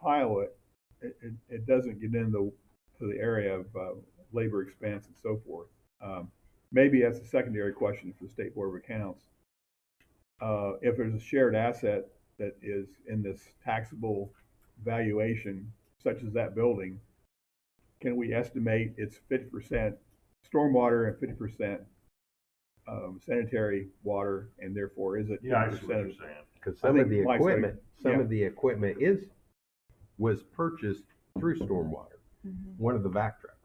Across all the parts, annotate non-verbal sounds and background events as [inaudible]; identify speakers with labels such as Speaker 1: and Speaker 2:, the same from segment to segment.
Speaker 1: pile it, it, it, it doesn't get into to the area of uh, labor expense and so forth. Um, maybe that's a secondary question for the State Board of Accounts. Uh, if there's a shared asset that is in this taxable valuation, such as that building, can we estimate it's fifty percent stormwater and fifty percent um, sanitary water, and therefore is it?
Speaker 2: Yeah, I see what
Speaker 1: 50%
Speaker 2: you're saying.
Speaker 3: Because
Speaker 1: I
Speaker 3: some of
Speaker 1: think
Speaker 3: the
Speaker 1: Mike's right.
Speaker 3: equipment, some
Speaker 1: Yeah.
Speaker 3: of the equipment is, was purchased through stormwater, one of the vac trucks.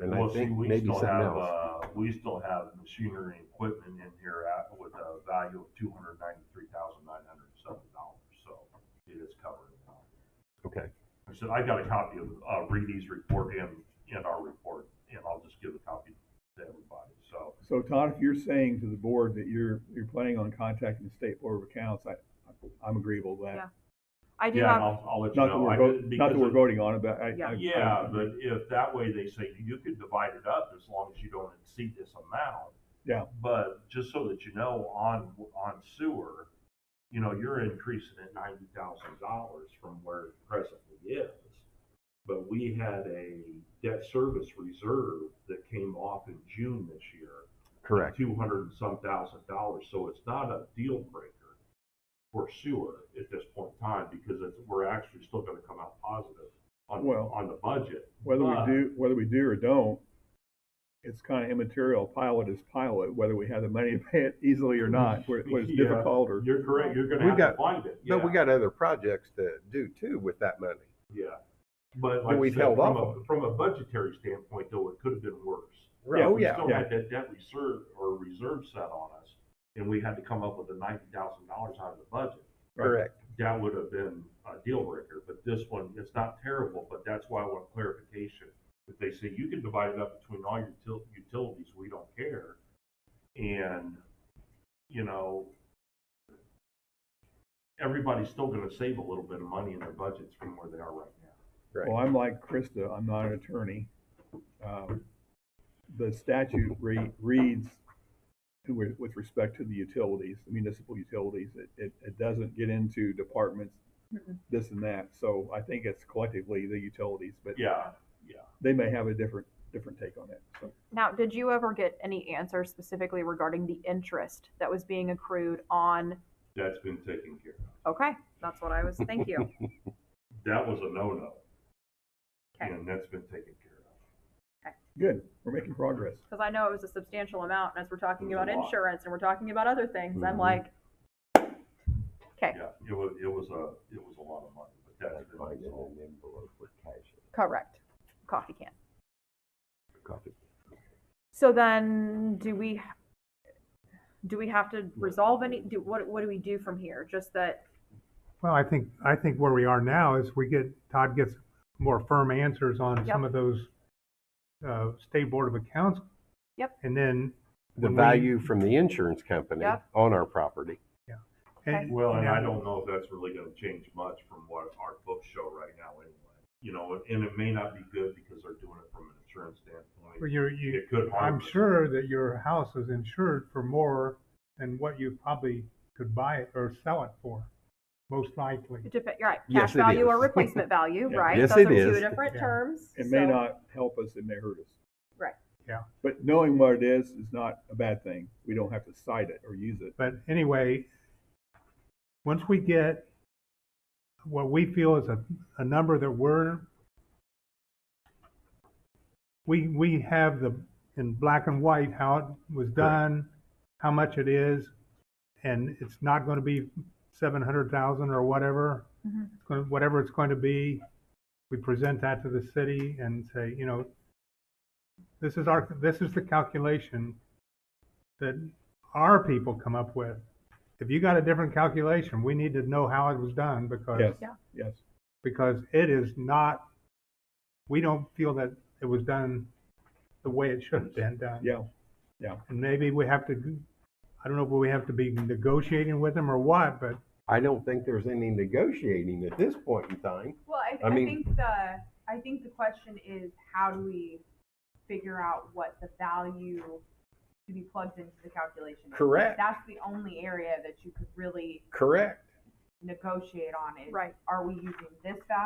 Speaker 3: And I
Speaker 2: Well, see,
Speaker 3: think
Speaker 2: we
Speaker 3: maybe
Speaker 2: still
Speaker 3: something
Speaker 2: have,
Speaker 3: else.
Speaker 2: uh, we still have machinery and equipment in here at, with a value of two hundred ninety-three thousand nine hundred and seven dollars, so it is covered.
Speaker 3: Okay,
Speaker 2: I said, I got a copy of, uh, Reedy's report and, and our report, and I'll just give a copy to everybody, so.
Speaker 1: So Todd, if you're saying to the board that you're, you're planning on contacting the State Board of Accounts, I, I'm agreeable with
Speaker 4: Yeah.
Speaker 1: that.
Speaker 4: I do
Speaker 2: Yeah, and
Speaker 4: have,
Speaker 2: I'll, I'll let you
Speaker 1: Not that
Speaker 2: know.
Speaker 1: we're,
Speaker 2: I
Speaker 1: vo-
Speaker 2: did-
Speaker 1: not that
Speaker 2: because
Speaker 1: we're
Speaker 2: it-
Speaker 1: voting on it, but I.
Speaker 4: Yeah.
Speaker 1: I- I-
Speaker 2: Yeah, but if that way they say you could divide it up as long as you don't exceed this amount.
Speaker 1: Yeah.
Speaker 2: But just so that you know, on, on sewer, you know, you're increasing it ninety thousand dollars from where it presently is. But we had a debt service reserve that came off in June this year
Speaker 3: correct.
Speaker 2: two hundred and some thousand dollars, so it's not a deal breaker for sewer at this point in time, because it's, we're actually still gonna come out positive on,
Speaker 1: Well-
Speaker 2: on the budget.
Speaker 1: Whether we
Speaker 2: But-
Speaker 1: do, whether we do or don't, it's kind of immaterial. Pilot is pilot, whether we have the money to pay it easily or not, where where it's
Speaker 2: [laughs] Yeah,
Speaker 1: difficult or.
Speaker 2: You're correct, you're
Speaker 3: We
Speaker 2: gonna have
Speaker 3: got-
Speaker 2: to find it, yeah,
Speaker 3: But we got other projects to do too with that money.
Speaker 2: yeah. But like I
Speaker 3: we've
Speaker 2: said,
Speaker 3: held
Speaker 2: from
Speaker 3: off on
Speaker 2: a, from a budgetary standpoint though, it could have been worse.
Speaker 1: Yeah,
Speaker 3: Oh,
Speaker 2: We
Speaker 3: yeah,
Speaker 2: still
Speaker 1: yeah.
Speaker 2: had that debt reserve or reserve set on us, and we had to come up with the ninety thousand dollars out of the budget.
Speaker 3: correct.
Speaker 2: that would have been a deal breaker, but this one, it's not terrible, but that's why I want clarification. If they say you can divide it up between all your til- utilities, we don't care, and, you know, everybody's still gonna save a little bit of money in their budgets from where they are right now.
Speaker 1: Well, I'm like Krista, I'm not an attorney. Um, The statute re- reads with, with respect to the utilities, the municipal utilities, it, it, it doesn't get into departments,
Speaker 4: Mhm.
Speaker 1: this and that. So I think it's collectively the utilities, but
Speaker 2: Yeah,
Speaker 1: they may have a different, different take on it. So
Speaker 4: now, did you ever get any answer specifically regarding the interest that was being accrued on?
Speaker 2: that's been taken care of.
Speaker 4: Okay, that's what I was, thank you.
Speaker 2: That was a no-no,
Speaker 4: Okay,
Speaker 2: and that's been taken care of.
Speaker 1: Good, we're making progress.
Speaker 4: because I know it was a substantial amount, and as we're talking
Speaker 2: It was
Speaker 4: about
Speaker 2: a lot.
Speaker 4: insurance and we're talking about other things, I'm
Speaker 3: Mhm.
Speaker 4: like, okay,
Speaker 2: Yeah, it was, it was a, it was a lot of money, but that's been
Speaker 3: Find it
Speaker 2: resolved.
Speaker 3: in an envelope with cash in
Speaker 4: correct, coffee can.
Speaker 3: it, coffee.
Speaker 4: So then, do we, do we have to resolve any, do, what, what do we do from here? Just that,
Speaker 5: Well, I think, I think where we are now is we get, Todd gets more firm answers on some
Speaker 4: Yep.
Speaker 5: of those, uh, state board of accounts.
Speaker 4: Yep.
Speaker 5: And then.
Speaker 3: The
Speaker 5: when we-
Speaker 3: value from the insurance company
Speaker 4: Yep.
Speaker 3: on our property.
Speaker 5: and-
Speaker 2: Well, and I
Speaker 5: now-
Speaker 2: don't know if that's really gonna change much from what our books show right now anyway. You know, and it may not be good because they're doing it from an insurance
Speaker 5: Well,
Speaker 2: standpoint.
Speaker 5: you're, you,
Speaker 2: It could harm.
Speaker 5: I'm
Speaker 2: us.
Speaker 5: sure that your house is insured for more than what you probably could buy it or sell it for, most likely.
Speaker 4: it depe- right,
Speaker 3: Yes,
Speaker 4: cash
Speaker 3: it
Speaker 4: value or
Speaker 3: is.
Speaker 4: replacement value,
Speaker 1: Yeah.
Speaker 4: right?
Speaker 3: Yes,
Speaker 4: Those
Speaker 3: it
Speaker 4: are two
Speaker 3: is.
Speaker 4: different
Speaker 5: Yeah.
Speaker 4: terms.
Speaker 1: It may
Speaker 4: so-
Speaker 1: not help us, it may hurt us.
Speaker 4: Right.
Speaker 5: Yeah.
Speaker 1: But knowing what it is is not a bad thing. We don't have to cite it or use it.
Speaker 5: But anyway, once we get what we feel is a, a number that we're, we, we have the, in black and white, how it was done, how much it is, and it's not gonna be seven hundred thousand or whatever.
Speaker 4: Mhm.
Speaker 5: It's gonna, whatever it's going to be, we present that to the city and say, you know, this is our, this is the calculation that our people come up with. If you got a different calculation, we need to know how it was done because
Speaker 1: Yes,
Speaker 4: Yeah.
Speaker 1: yes.
Speaker 5: because it is not. We don't feel that it was done the way it should have been done.
Speaker 1: Yeah,
Speaker 5: And maybe we have to. I don't know if we have to be negotiating with them or what, but
Speaker 3: I don't think there's any negotiating at this point in time.
Speaker 6: Well, I,
Speaker 3: I
Speaker 6: I,
Speaker 3: mean-
Speaker 6: think the I think the question is how do we figure out what the value to be plugged into the calculation? is?
Speaker 3: Correct.
Speaker 6: That's the only area that you could really
Speaker 3: Correct.
Speaker 6: negotiate on is,
Speaker 4: Right.
Speaker 6: are we using this value